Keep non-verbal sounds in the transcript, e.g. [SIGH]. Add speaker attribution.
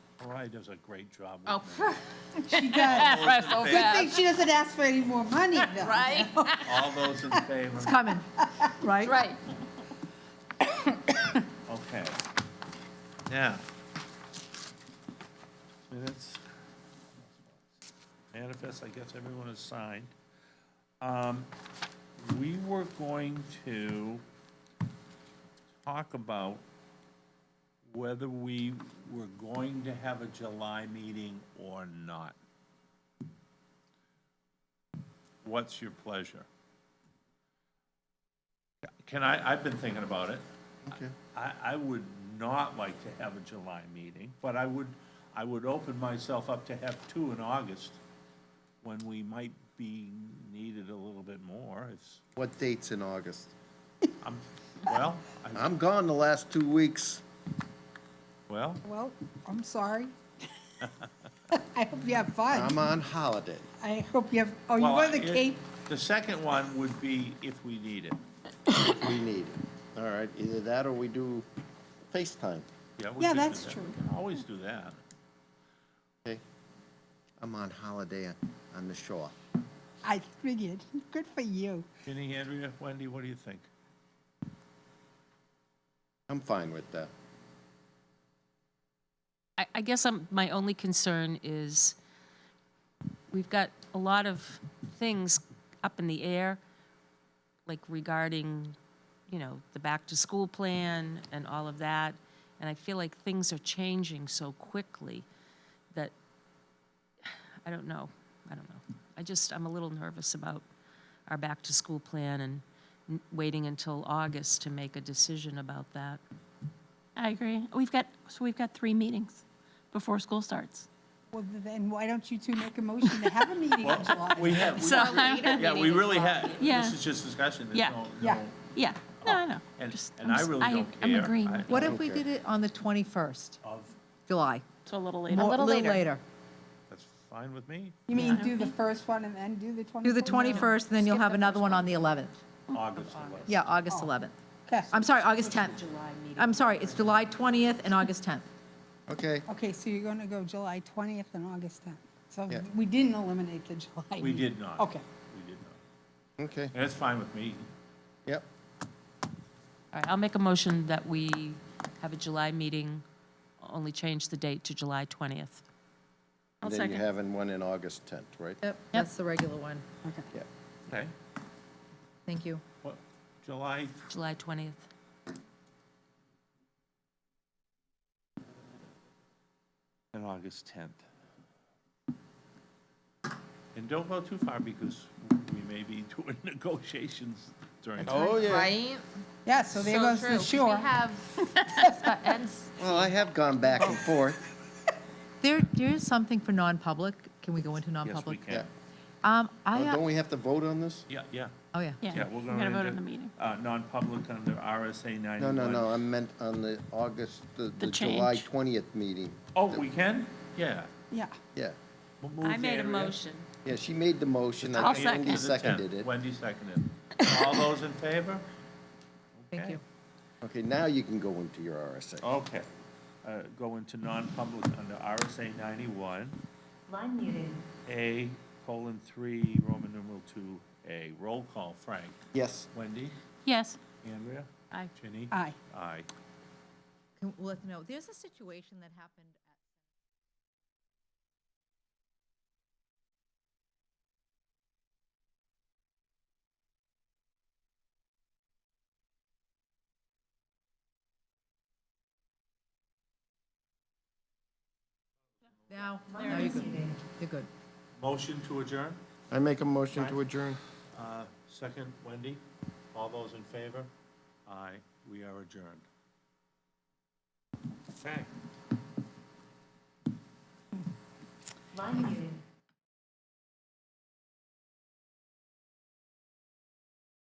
Speaker 1: Mariah does a great job. with
Speaker 2: [LAUGHS]
Speaker 3: Oh,
Speaker 1: me.
Speaker 2: She
Speaker 3: [LAUGHS]
Speaker 4: [LAUGHS]
Speaker 2: does.
Speaker 3: that's so
Speaker 2: Good
Speaker 3: bad,
Speaker 2: thing she doesn't ask for any more money,
Speaker 3: [LAUGHS]
Speaker 2: though.
Speaker 3: right?
Speaker 1: All those in favor?
Speaker 4: coming, right? [LAUGHS]
Speaker 3: Right.
Speaker 1: Okay. Now. Minutes. Manifest, I guess everyone has signed. Um, We were going to talk about whether we were going to have a July meeting or not. What's your pleasure? Can I, I've been thinking about it.
Speaker 5: Okay.
Speaker 1: I, I would not like to have a July meeting, but I would, I would open myself up to have two in August when we might be needed a little bit more. It's,
Speaker 5: What date's in August?
Speaker 1: I'm, well, I,
Speaker 5: I'm gone the last two weeks.
Speaker 1: well,
Speaker 2: Well, I'm
Speaker 4: [LAUGHS]
Speaker 2: sorry. I hope you have fun.
Speaker 5: I'm on holiday.
Speaker 2: I hope you have, oh, you
Speaker 1: well,
Speaker 2: go to the
Speaker 1: it-
Speaker 2: Cape?
Speaker 1: The second one would be if we need it.
Speaker 5: We need it. All right, either that or we do FaceTime.
Speaker 1: Yeah, we
Speaker 2: Yeah,
Speaker 1: could do
Speaker 2: that's
Speaker 1: that.
Speaker 2: true.
Speaker 1: We can always do that.
Speaker 5: Okay. I'm on holiday on the shore.
Speaker 2: I figured. Good for you.
Speaker 1: Ginny, Andrea, Wendy, what do you think?
Speaker 5: I'm fine with that.
Speaker 6: I, I guess I'm, my only concern is, we've got a lot of things up in the air, like regarding, you know, the back-to-school plan and all of that, and I feel like things are changing so quickly that, I don't know, I don't know. I just, I'm a little nervous about our back-to-school plan and n- waiting until August to make a decision about that.
Speaker 7: I agree. We've got, so we've got three meetings before school starts.
Speaker 2: Well, then why don't you two make a motion to have a meeting in July?
Speaker 1: We have, we-
Speaker 6: So I'm-
Speaker 1: yeah, we really have,
Speaker 7: Yeah.
Speaker 1: this is just discussion. There's
Speaker 7: Yeah.
Speaker 1: no-
Speaker 2: Yeah.
Speaker 1: no-
Speaker 7: Yeah, no, I know.
Speaker 1: And,
Speaker 7: Just-
Speaker 1: and
Speaker 7: I'm
Speaker 1: I
Speaker 7: just-
Speaker 1: really don't care.
Speaker 7: I'm agreeing.
Speaker 1: I-
Speaker 7: with
Speaker 4: What if we
Speaker 5: Okay.
Speaker 4: did it on the 21st
Speaker 1: Of,
Speaker 4: July?
Speaker 7: you. So a little later.
Speaker 4: Mo-
Speaker 3: little later.
Speaker 1: that's fine with me,
Speaker 2: You mean do the first one and then do the 24th?
Speaker 4: Do the 21st, and then you'll have another one Oh. on the 11th.
Speaker 1: August 11th.
Speaker 4: Yeah, August 11th.
Speaker 2: Okay.
Speaker 4: I'm sorry, August 10th. I'm sorry, it's July 20th and August 10th.
Speaker 5: Okay,
Speaker 2: Okay, so you're going to go July 20th and August 10th. So
Speaker 5: Yeah.
Speaker 2: we didn't eliminate the July.
Speaker 1: We
Speaker 2: meeting.
Speaker 1: did not.
Speaker 2: Okay.
Speaker 1: We did not.
Speaker 5: okay,
Speaker 1: And that's fine with me.
Speaker 5: yep.
Speaker 6: All right, I'll make a motion that we have a July meeting, only change the date to July 20th.
Speaker 7: I'll
Speaker 5: And then you're
Speaker 7: second.
Speaker 5: having one in August 10th, right?
Speaker 4: Yep, that's the regular one.
Speaker 2: Okay.
Speaker 5: Yep.
Speaker 1: Okay.
Speaker 4: Thank you.
Speaker 1: What, July,
Speaker 6: July 20th.
Speaker 1: And August 10th. And don't go too far because we may be [LAUGHS] doing negotiations during.
Speaker 5: Oh, yeah.
Speaker 3: Right?
Speaker 2: Yeah, so there goes
Speaker 3: true,
Speaker 2: the
Speaker 3: 'cause
Speaker 2: shore.
Speaker 3: We have, and
Speaker 5: Well, I have gone back
Speaker 4: Oh.
Speaker 5: and forth.
Speaker 4: There, there is something for non-public. Can we go into
Speaker 1: Yes, we
Speaker 4: non-public?
Speaker 1: can.
Speaker 4: Um, I,
Speaker 5: Oh, Don't
Speaker 4: uh,
Speaker 5: we have to vote on this?
Speaker 1: Yeah, yeah,
Speaker 4: oh, yeah.
Speaker 1: yeah,
Speaker 7: Yeah,
Speaker 1: we're
Speaker 7: we're
Speaker 1: going to.
Speaker 7: gonna vote in the meeting.
Speaker 1: Uh, non-public under RSA 91.
Speaker 5: No, no, no, I meant on the August, the the July
Speaker 7: change.
Speaker 5: 20th meeting.
Speaker 1: Oh, we can? Yeah.
Speaker 2: Yeah.
Speaker 5: Yeah,
Speaker 1: We'll move Andrea.
Speaker 5: yeah, she made the motion. I
Speaker 7: I'll
Speaker 5: think Wendy
Speaker 1: To the 10th.
Speaker 5: Seconded it.
Speaker 1: Wendy seconded. All those in favor?
Speaker 4: Thank
Speaker 1: Okay.
Speaker 4: you.
Speaker 5: Okay, now you can go into your RSA.
Speaker 1: Okay. Uh, Go into non-public under RSA 91.
Speaker 8: Line muted.
Speaker 1: A, colon, three, Roman numeral two, A. Roll call, Frank.
Speaker 5: Yes.
Speaker 1: Wendy?
Speaker 7: Yes.
Speaker 1: Andrea?
Speaker 7: Aye.
Speaker 1: Ginny?
Speaker 2: Aye.
Speaker 1: Aye.
Speaker 4: Can, we'll let them know. There's a situation that happened at Now, now you're good. You're good.
Speaker 1: Motion to adjourn?
Speaker 5: I make a motion to adjourn.
Speaker 1: Uh, Second, Wendy? All those in favor? Aye. We are adjourned. Okay.
Speaker 8: Line muted.